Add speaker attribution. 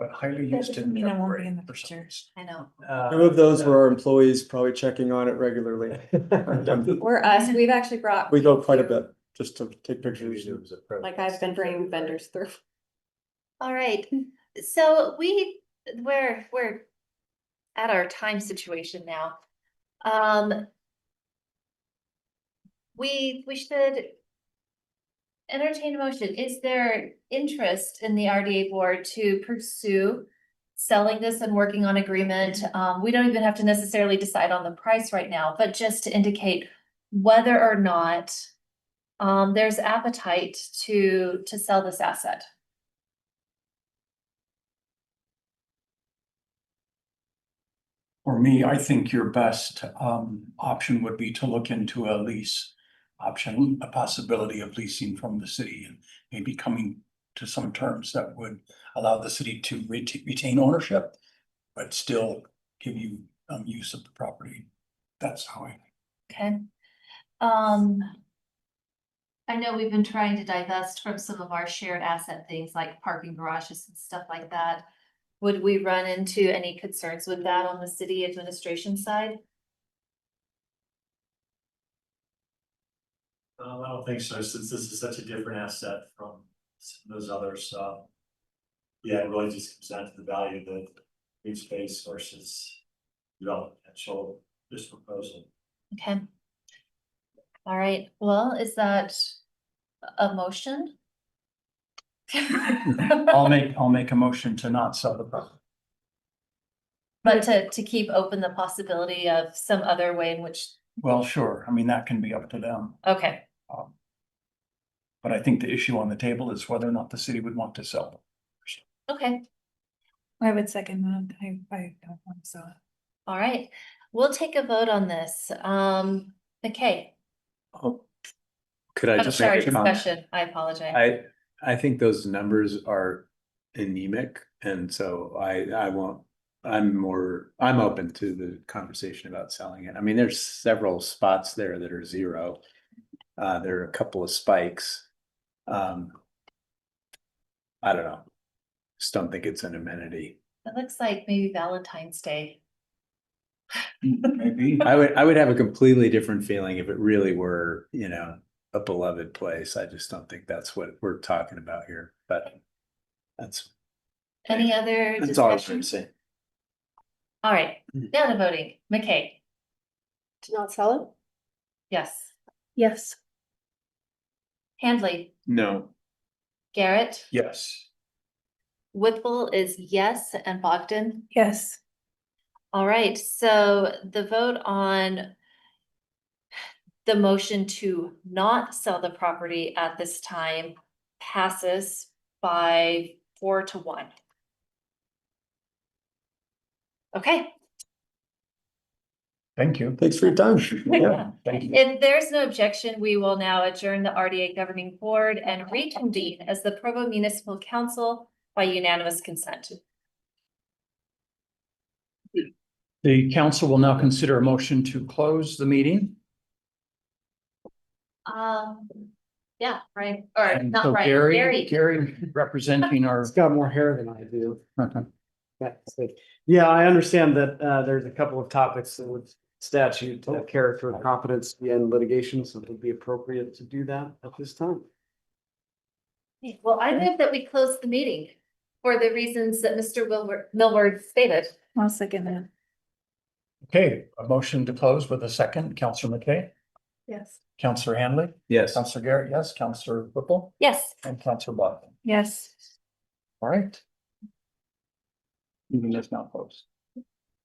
Speaker 1: but highly
Speaker 2: That
Speaker 1: used didn't
Speaker 2: doesn't mean I won't be
Speaker 1: upgrade
Speaker 2: in the
Speaker 1: for some
Speaker 2: picture.
Speaker 1: reason.
Speaker 2: I know.
Speaker 3: Uh,
Speaker 4: Some of those were our employees probably checking on it regularly.
Speaker 5: Or us, we've actually brought.
Speaker 4: Mm-hmm. We go quite a
Speaker 5: people
Speaker 4: bit just to take pictures.
Speaker 5: through, Like I've been bringing vendors through.
Speaker 2: All right, so we, we're, we're at our time situation now. Um. We, we should. Entertain a motion. Is there interest in the RDA board to pursue? Selling this and working on agreement? Um, we don't even have to necessarily decide on the price right now, but just to indicate whether or not. Um, there's appetite to, to sell this asset.
Speaker 1: For me, I think your best um option would be to look into a lease option, a possibility of leasing from the city and maybe coming to some terms that would allow the city to rete- retain ownership, but still give you um use of the property. That's how I,
Speaker 2: Okay, um. I know we've been trying to divest from some of our shared asset things like parking garages and stuff like that. Would we run into any concerns with that on the city administration side?
Speaker 3: Um, I don't think so, since this is such a different asset from some of those others, uh. Yeah, it really just comes down to the value of the green space versus development potential, this proposal.
Speaker 2: Okay. All right, well, is that a motion?
Speaker 1: I'll make, I'll make a motion to not sell the property.
Speaker 2: But to, to keep open the possibility of some other way in which,
Speaker 1: Well, sure, I mean, that can be up to them.
Speaker 2: okay,
Speaker 1: um, But I think the issue on the table is whether or not the city would want to sell.
Speaker 2: okay.
Speaker 6: I would second that. I, I don't want to sell it.
Speaker 2: All right, we'll take a vote on this. Um, McKay,
Speaker 7: Oh, Could I
Speaker 2: I'm
Speaker 7: just
Speaker 2: sorry,
Speaker 7: make a comment?
Speaker 2: discussion, I apologize.
Speaker 7: I, I think those numbers are anemic, and so I, I won't, I'm more, I'm open to the conversation about selling it. I mean, there's several spots there that are zero. Uh, there are a couple of spikes. Um, I don't know. Just don't think it's an amenity.
Speaker 2: It looks like maybe Valentine's Day.
Speaker 1: Maybe.
Speaker 7: I would, I would have a completely different feeling if it really were, you know, a beloved place. I just don't think that's what we're talking about here, but that's,
Speaker 2: Any other
Speaker 7: that's all I'm
Speaker 2: discussion?
Speaker 7: trying to say.
Speaker 2: All right,
Speaker 7: Mm.
Speaker 2: now to voting. McKay,
Speaker 5: To not sell it?
Speaker 2: yes.
Speaker 5: Yes.
Speaker 2: Handley,
Speaker 7: No.
Speaker 2: Garrett,
Speaker 1: Yes.
Speaker 2: Whipple is yes, and Bogdan?
Speaker 6: Yes.
Speaker 2: All right, so the vote on the motion to not sell the property at this time passes by four to one. Okay,
Speaker 1: Thank you.
Speaker 4: Thanks for your time.
Speaker 2: Yeah.
Speaker 1: Thank you.
Speaker 2: if there's no objection, we will now adjourn the RDA governing board and reconvene as the Provo Municipal Council by unanimous consent.
Speaker 1: The council will now consider a motion to close the meeting.
Speaker 2: Um, yeah, right, or
Speaker 1: And
Speaker 2: not
Speaker 1: so
Speaker 2: right,
Speaker 1: Gary,
Speaker 2: Gary,
Speaker 1: Gary representing our.
Speaker 3: It's got more hair than I do.
Speaker 1: Okay.
Speaker 3: That's it. Yeah, I understand that uh there's a couple of topics that would statute uh, character of competence and litigation, so it would be appropriate to do that at this time.
Speaker 2: Well, I move that we close the meeting for the reasons that Mr. Wilbur, Millward stated.
Speaker 6: I'll second that.
Speaker 1: Okay, a motion to close with a second. Counselor McKay,
Speaker 6: Yes.
Speaker 1: Counselor Hanley,
Speaker 7: Yes.
Speaker 1: Counselor Garrett, yes, Counselor Whipple,
Speaker 2: Yes.
Speaker 1: and Counselor Bogdan.
Speaker 6: Yes.
Speaker 1: All right. Even if not closed.